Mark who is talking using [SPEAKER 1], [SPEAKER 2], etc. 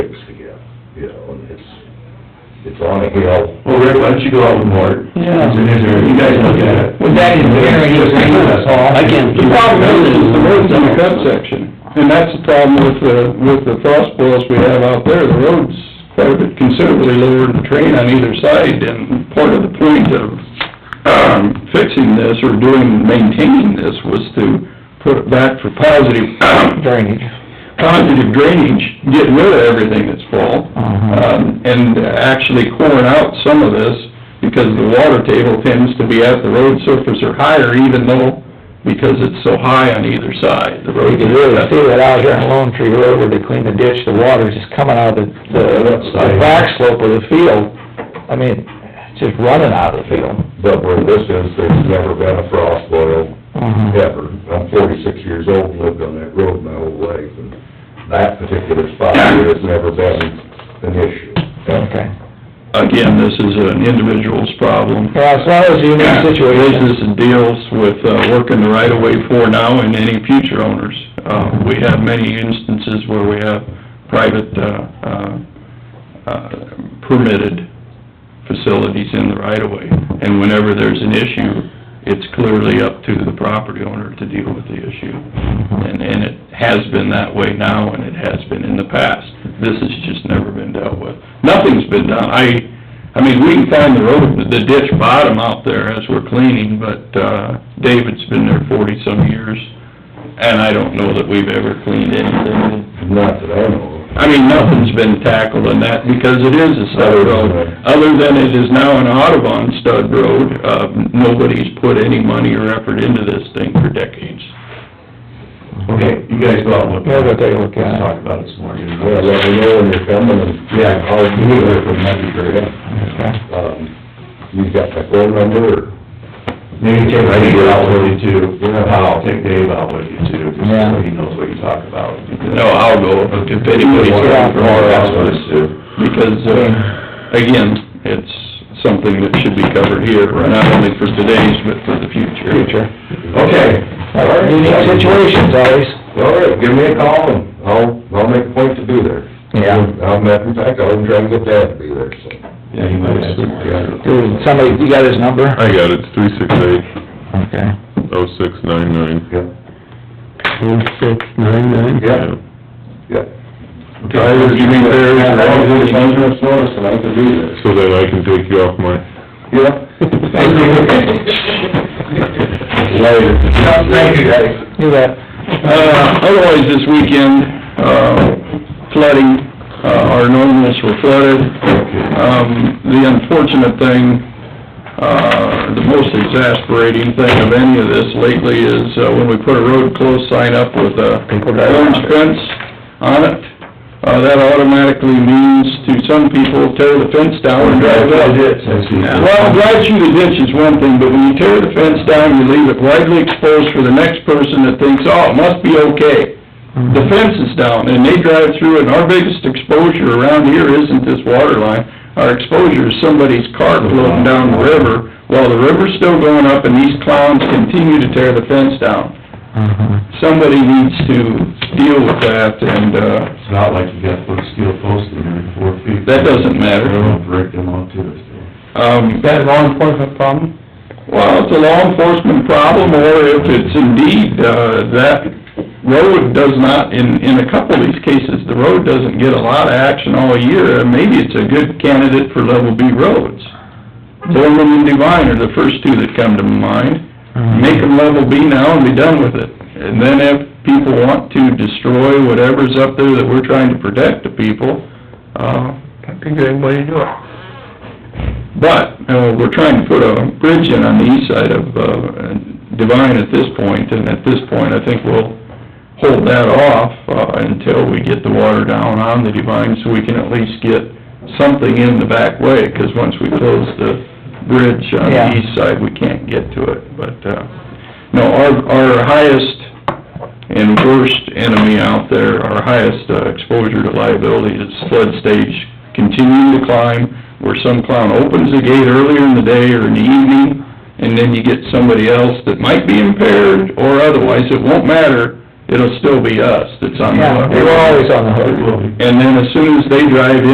[SPEAKER 1] you know, and it's, it's on a hill.
[SPEAKER 2] Well, Rick, why don't you go out and board?
[SPEAKER 3] Yeah.
[SPEAKER 2] It's an engineer, you guys look at it.
[SPEAKER 3] With that in there, he was saying that's all.
[SPEAKER 2] I can't-
[SPEAKER 3] The problem is, is the road's in the cut
[SPEAKER 4] section, and that's the problem with the, with the frost boils we have out there, the road's quite a bit considerably lower than the terrain on either side, and part of the point of, um, fixing this or doing, maintaining this was to put it back for positive,
[SPEAKER 3] Drainage.
[SPEAKER 4] positive drainage, get rid of everything that's full,
[SPEAKER 3] Uh-huh.
[SPEAKER 4] um, and actually coring out some of this, because the water table tends to be at the road surface or higher, even though, because it's so high on either side, the
[SPEAKER 3] You
[SPEAKER 4] road.
[SPEAKER 3] can really see that out here on Lone Tree Road where they clean the ditch, the water's just coming out of the, the the back slope of the field. I mean, it's just running out of the field.
[SPEAKER 1] But where this is, there's never been a frost boil,
[SPEAKER 3] Uh-huh.
[SPEAKER 1] ever. I'm forty-six years old, lived on that road my whole life, and that particular spot here has never been an issue.
[SPEAKER 3] Okay.
[SPEAKER 4] Again, this is an individual's problem.
[SPEAKER 3] Yeah, as long as you know the situation.
[SPEAKER 4] Business and deals with, uh, working the right of way for now and any future owners. Uh, we have many instances where we have private, uh, uh, uh, permitted facilities in the right of way. And whenever there's an issue, it's clearly up to the property owner to deal with the issue. And, and it has been that way now, and it has been in the past. This has just never been dealt with. Nothing's been done. I, I mean, we can find the road, the ditch bottom out there as we're cleaning, but, uh, David's been there forty-some years, and I don't know that we've ever cleaned anything.
[SPEAKER 1] Not that I know of.
[SPEAKER 4] I mean, nothing's been tackled in that, because it is a stud road. Other than it is now an Audubon stud road, uh, nobody's put any money or effort into this thing for decades.
[SPEAKER 2] Okay, you guys go out and look.
[SPEAKER 3] Yeah, we'll take a look at it.
[SPEAKER 2] Talk about it some more.
[SPEAKER 1] Yeah, let me know when you're coming, and, yeah, I'll be there for Monday, great.
[SPEAKER 3] Okay.
[SPEAKER 1] Um, you got my phone number, or?
[SPEAKER 2] Maybe take Dave out with you too.
[SPEAKER 1] Yeah.
[SPEAKER 2] I'll take Dave out with you too, just
[SPEAKER 3] Yeah.
[SPEAKER 2] so he knows what you talk about.
[SPEAKER 4] No, I'll go, if anybody's going for more, that's what it's
[SPEAKER 2] too.
[SPEAKER 4] because, uh, again, it's something that should be covered here, not only for today's, but for the future.
[SPEAKER 3] Future.
[SPEAKER 1] Okay.
[SPEAKER 3] Like, Unique situations always.
[SPEAKER 1] All right, give me a call, and I'll, I'll make a point to be there.
[SPEAKER 3] Yeah.
[SPEAKER 1] I'll, in fact, I'll even try and get Dad to be there, so.
[SPEAKER 2] Yeah, he might have some
[SPEAKER 3] Dude, somebody, you got his number?
[SPEAKER 5] I got it, it's three six eight,
[SPEAKER 3] Okay.
[SPEAKER 5] oh six nine nine.
[SPEAKER 1] Yep,
[SPEAKER 2] nine.
[SPEAKER 1] yep, yep.
[SPEAKER 2] I was giving there,
[SPEAKER 1] Yeah, I was
[SPEAKER 2] I was
[SPEAKER 1] just noticed, and I can be there.
[SPEAKER 5] So that I can take you off my
[SPEAKER 1] Yeah. Later. Thank you, guys.
[SPEAKER 3] You bet.
[SPEAKER 4] Uh, otherwise, this weekend, uh, flooding, uh, our normals were flooded. Um, the unfortunate thing, uh, the most exasperating thing of any of this lately is uh, when we put a road closed sign up with a orange fence on it, uh, that automatically means to some people, tear the fence down and drive it up. Well, drive through the ditch is one thing, but when you tear the fence down, you leave it widely exposed for the next person that thinks, oh, it must be okay. The fence is down, and they drive through, it, and our biggest exposure around here isn't this water line. Our exposure is somebody's car floating down the river, while the river's still going up, and these clowns continue to tear the fence down.
[SPEAKER 3] Uh-huh.
[SPEAKER 4] Somebody needs to deal with that, and, uh,
[SPEAKER 2] It's not like you got to put a steel post in every four feet.
[SPEAKER 4] that
[SPEAKER 2] I
[SPEAKER 4] doesn't
[SPEAKER 2] don't
[SPEAKER 4] matter.
[SPEAKER 2] know if Rick didn't want to, so.
[SPEAKER 4] Um,
[SPEAKER 3] That law enforcement problem?
[SPEAKER 4] Well, it's a law enforcement problem, or if it's indeed, uh, that road does not, in, in a couple of these cases, the road doesn't get a lot of action all year, and maybe it's a good candidate for level B roads. Bowman and Divine are the first two that come to mind. Make them level B now and be done with it. And then if people want to destroy whatever's up there that we're trying to protect the people, uh,
[SPEAKER 3] That'd be a good way to do it.
[SPEAKER 4] but, uh, we're trying to put a bridge in on the east side of, uh, Divine at this point, and at this point, I think we'll hold that off, uh, until we get the water down on the Divine, so we can at least get something in the back way, 'cause once we close the bridge on
[SPEAKER 3] Yeah.
[SPEAKER 4] the east side, we can't get to it, but, uh, no, our, our highest and worst enemy out there, our highest uh, exposure to liability is flood stage continuing to climb, where some clown opens the gate earlier in the day or in the evening, and then you get somebody else that might be impaired or otherwise, it won't matter, it'll still be us that's on the
[SPEAKER 3] Yeah,
[SPEAKER 4] hook.
[SPEAKER 3] we're always on the hook.
[SPEAKER 4] And then as soon as they drive in.